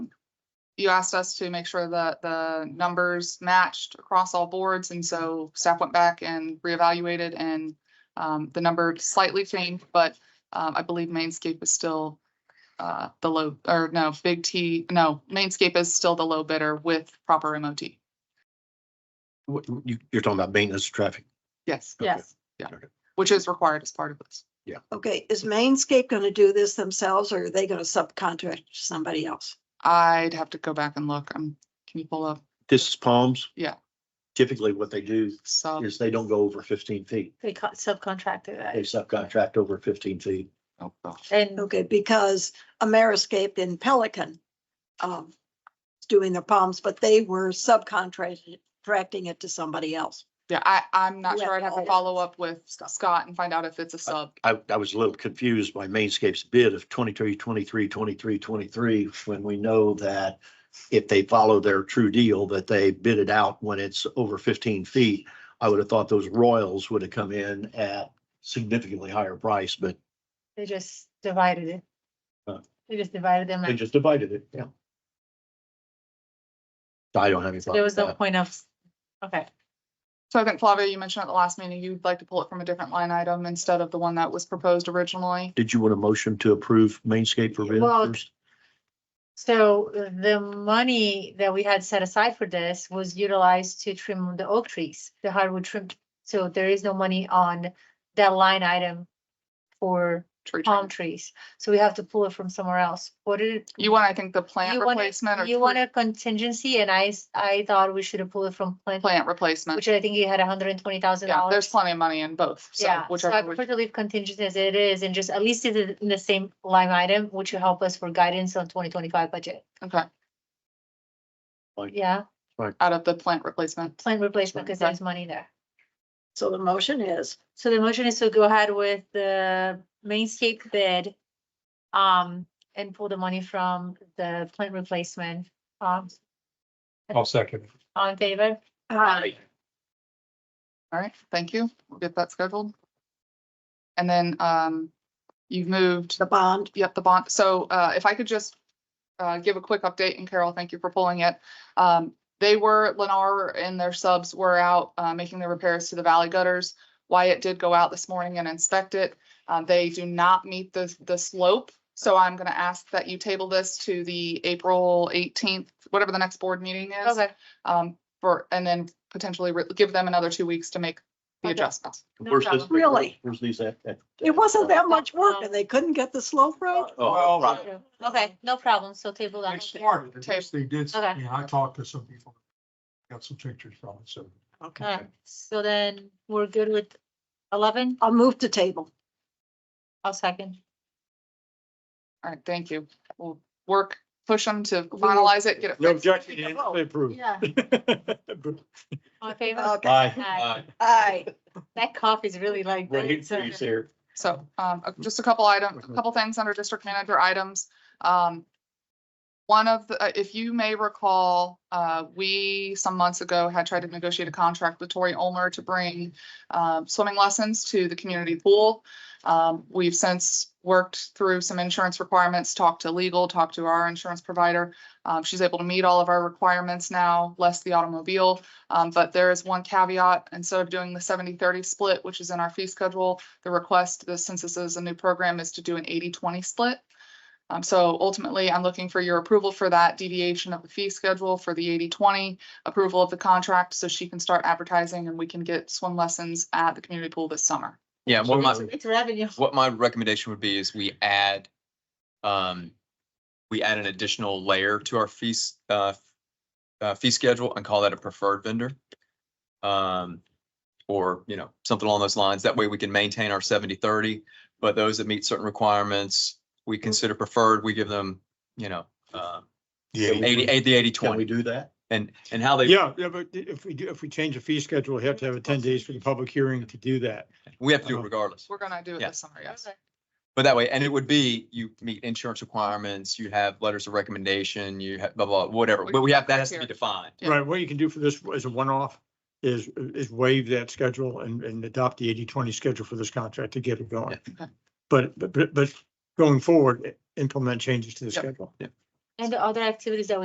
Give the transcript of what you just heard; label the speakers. Speaker 1: you asked us to make sure that the numbers matched across all boards, and so staff went back and reevaluated and um, the number slightly changed, but um, I believe Mainscape is still uh, the low, or no, Big T, no, Mainscape is still the low bidder with proper MOT.
Speaker 2: What, you, you're talking about maintenance of traffic?
Speaker 1: Yes,
Speaker 2: Okay.
Speaker 3: Yes.
Speaker 1: Yeah.
Speaker 2: Okay.
Speaker 1: which is required as part of this.
Speaker 3: Okay, is Mainscape gonna do this themselves or are they gonna subcontract to somebody else?
Speaker 1: I'd have to go back and look. Um, can you pull up?
Speaker 2: This is Palms?
Speaker 1: Yeah. Um,
Speaker 2: Typically what they do
Speaker 1: So,
Speaker 2: is they don't go over fifteen feet.
Speaker 4: They co- subcontracted
Speaker 2: They
Speaker 4: that.
Speaker 2: subcontract over fifteen feet.
Speaker 1: oh, gosh.
Speaker 4: And
Speaker 3: Okay, because Ameriscape in Pelican, um, is doing their palms, but they were subcontracting, contracting it to somebody else.
Speaker 1: yeah, I, I'm not sure.
Speaker 3: Yeah,
Speaker 1: I'd have to
Speaker 3: oh,
Speaker 1: follow up with
Speaker 3: Scott.
Speaker 1: Scott and find out if it's a sub.
Speaker 2: I, I was a little confused by Mainscape's bid of 23, 23, 23, 23. when we know that if they follow their true deal, that they bid it out when it's over fifteen feet. I would have thought those Royals would have come in at significantly higher price, but
Speaker 4: they just divided it.
Speaker 2: Huh.
Speaker 4: They just divided them.
Speaker 2: they
Speaker 4: and
Speaker 2: just divided it, yeah. I don't have any.
Speaker 4: There was
Speaker 2: problem
Speaker 4: no
Speaker 2: with
Speaker 4: point of, okay,
Speaker 1: So I think Flavia, you mentioned at the last meeting, you'd like to pull it from a different line item instead of the one that was proposed originally.
Speaker 2: that. Did you want a motion to approve Mainscape for bid
Speaker 4: Well,
Speaker 2: first?
Speaker 4: so uh, the money that we had set aside for this was utilized to trim the oak trees, the hardwood trim. So there is no money on that line item for
Speaker 1: Tree
Speaker 4: palm
Speaker 1: trim.
Speaker 4: trees. So we have to pull it from somewhere else. What did,
Speaker 1: You want, I think, the plant
Speaker 4: You want it-
Speaker 1: replacement or
Speaker 4: you
Speaker 1: tree-
Speaker 4: want a contingency and I, s- I thought we should have pulled it from plant,
Speaker 1: plant replacement.
Speaker 4: which I think you had hundred and twenty thousand
Speaker 1: Yeah,
Speaker 4: dollars.
Speaker 1: there's plenty of money in both. So
Speaker 4: Yeah, so I
Speaker 1: whichever, we-
Speaker 4: prefer to leave contingent as it is and just at least it is in the same line item, which will help us for guidance on twenty twenty-five budget.
Speaker 1: okay,
Speaker 4: Yeah,
Speaker 1: out of the plant replacement.
Speaker 4: plant replacement because
Speaker 1: Okay.
Speaker 4: there's money there.
Speaker 3: So the motion is,
Speaker 4: So the motion is to go ahead with the mainscape bid. Um, and pull the money from the plant replacement. Um,
Speaker 5: I'll second. it.
Speaker 4: all in favor?
Speaker 3: uh,
Speaker 1: All right, thank you. We'll get that scheduled. And then, um, you've moved
Speaker 3: the bond,
Speaker 1: Yep, the bond. So uh, if I could just uh, give a quick update, and Carol, thank you for pulling it. Um, They were, Lennar and their subs were out uh, making the repairs to the valley gutters. Wyatt did go out this morning and inspect it. Uh, They do not meet the, the slope. So I'm going to ask that you table this to the April 18th, whatever the next board meeting is.
Speaker 4: Okay,
Speaker 1: um, For, and then potentially re- give them another two weeks to make the
Speaker 4: Okay.
Speaker 1: adjustments.
Speaker 4: No
Speaker 2: Where's this-
Speaker 4: problem.
Speaker 3: Really?
Speaker 2: Where's these at? at-
Speaker 3: it wasn't that much work and they couldn't get the slope road.
Speaker 2: Oh, right.
Speaker 4: okay, no problem. So table
Speaker 5: They
Speaker 4: that.
Speaker 5: started, at least they did,
Speaker 4: Okay.
Speaker 5: yeah, I talked to some people. Got some pictures
Speaker 2: Oh,
Speaker 5: from it, so.
Speaker 3: Okay,
Speaker 4: Alright, so then we're good with eleven?
Speaker 3: I'll move to table.
Speaker 4: I'll second.
Speaker 1: All right, thank you. We'll work, push them to
Speaker 3: will-
Speaker 1: finalize it, get it fixed.
Speaker 5: objection, approved.
Speaker 4: Yeah. All in favor?
Speaker 3: Okay,
Speaker 2: Bye.
Speaker 4: Aye.
Speaker 3: aye.
Speaker 4: That coffee's really like. that,
Speaker 2: Right,
Speaker 4: so-
Speaker 2: he's here.
Speaker 1: So, um, uh, just a couple item, a
Speaker 2: Mhm.
Speaker 1: couple things under district manager items. Um, one of the, uh, if you may recall, uh, we some months ago had tried to negotiate a contract with Tori Olmer to bring, um, swimming lessons to the community pool. Um, we've since worked through some insurance requirements, talked to legal, talked to our insurance provider. Um, she's able to meet all of our requirements now, less the automobile. Um, but there is one caveat, instead of doing the 70-30 split, which is in our fee schedule, the request, the census is a new program, is to do an 80-20 split. Um, so ultimately, I'm looking for your approval for that deviation of the fee schedule for the 80-20 approval of the contract, so she can start advertising and we can get swim lessons at the community pool this summer.
Speaker 6: Yeah, what
Speaker 4: It's
Speaker 6: my,
Speaker 4: it's revenue.
Speaker 6: what my recommendation would be is we add, um, we add an additional layer to our fees, uh, uh, fee schedule and call that a preferred vendor. Um, or, you know, something along those lines. That way we can maintain our 70 30. but those that meet certain requirements, we consider preferred, we give them, you know, uh, eighty, eight, the eighty,
Speaker 2: Can we
Speaker 6: twenty
Speaker 2: do that?
Speaker 6: and, and how they.
Speaker 7: Yeah, yeah, but if we, do- if we change the fee schedule, we have to have a ten days for the public hearing to do that.
Speaker 6: We have to do
Speaker 2: Uh-huh.
Speaker 6: it regardless.
Speaker 1: We're gonna do it
Speaker 6: Yeah.
Speaker 1: this summer, yes.
Speaker 4: Okay.
Speaker 6: But that way, and it would be, you meet insurance requirements, you have letters of recommendation, you have blah, blah, whatever, but we have, that has to be defined.
Speaker 1: Yeah.
Speaker 7: Right, what you can do for this as a one-off is, is waive that schedule and, and adopt the 80-20 schedule for this contract to get it going.
Speaker 1: Yeah. Okay.
Speaker 7: But, but, but going forward, implement changes to the
Speaker 1: Yep.
Speaker 7: schedule.
Speaker 4: And the other activities that we